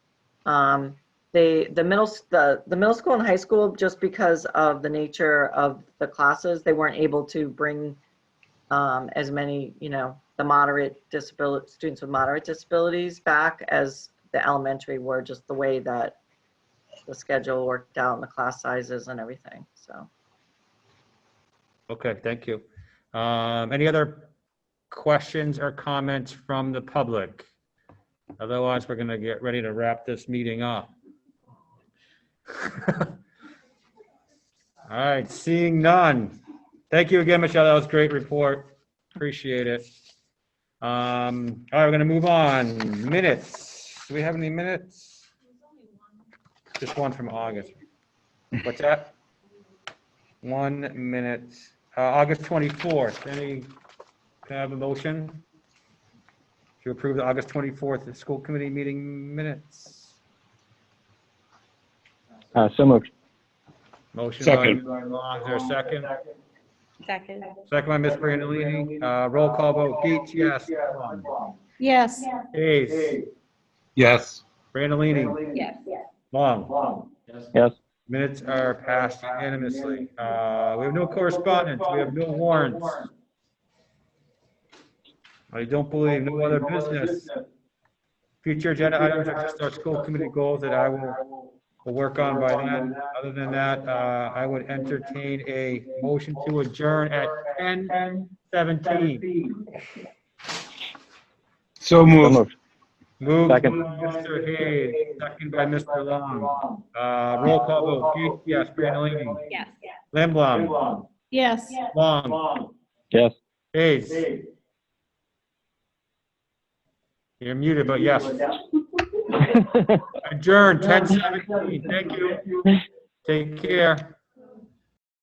Um, They, the middle, s- the, the middle school and high school, just because of the nature of the classes, they weren't able to bring um, as many, you know, the moderate disability, students with moderate disabilities back as the elementary were, just the way that the schedule worked out and the class sizes and everything, so. Okay, thank you. Um, Any other questions or comments from the public? Otherwise, we're going to get ready to wrap this meeting up. All right, seeing none. Thank you again, Michelle. That was a great report. Appreciate it. Um, All right, we're going to move on. Minutes. Do we have any minutes? Just one from August. What's that? One minute, uh, August 24th, any, can I have a motion? To approve the August 24th school committee meeting minutes? Uh, so moved. Motion Second. by Long, is there a second? Second. Second by Ms. Brandalini, uh, roll call vote, Geach, yes. Yes. Hayes, Yes. Brandalini, Yes. Long, Yes. minutes are passed unanimously. Uh, we have no correspondence, we have no warrants. I don't believe, no other business. Future agenda items are just our school committee goals that I will We'll work on by then. Other than that, uh, I would entertain a motion to adjourn at 10:17. So moved. Moved by Second. Mr. Hayes, second by Mr. Long. Uh, Roll call vote, Gates, yes, Um, Brandalini. Yes. Limblom, Yes. Long, Yes. Hayes. You're muted, but yes. Adjourn, 10:17. Thank you. Take care.